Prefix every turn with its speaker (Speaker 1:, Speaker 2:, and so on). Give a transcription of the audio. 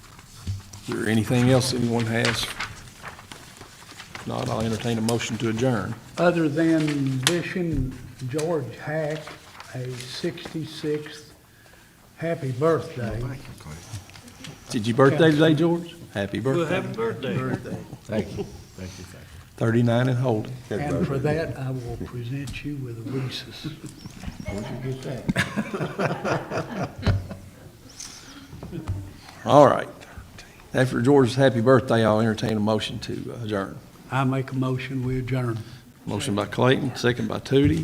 Speaker 1: Is there anything else anyone has? If not, I'll entertain a motion to adjourn.
Speaker 2: Other than wishing George Hack a 66th happy birthday.
Speaker 1: Did your birthday today, George? Happy birthday.
Speaker 3: Happy birthday.
Speaker 4: Thank you, thank you, thank you.
Speaker 1: 39 and holding.
Speaker 2: And for that, I will present you with a Reese's.
Speaker 1: All right. After George's happy birthday, I'll entertain a motion to adjourn.
Speaker 2: I make a motion, we adjourn.
Speaker 1: Motion by Clayton, second by Tootie.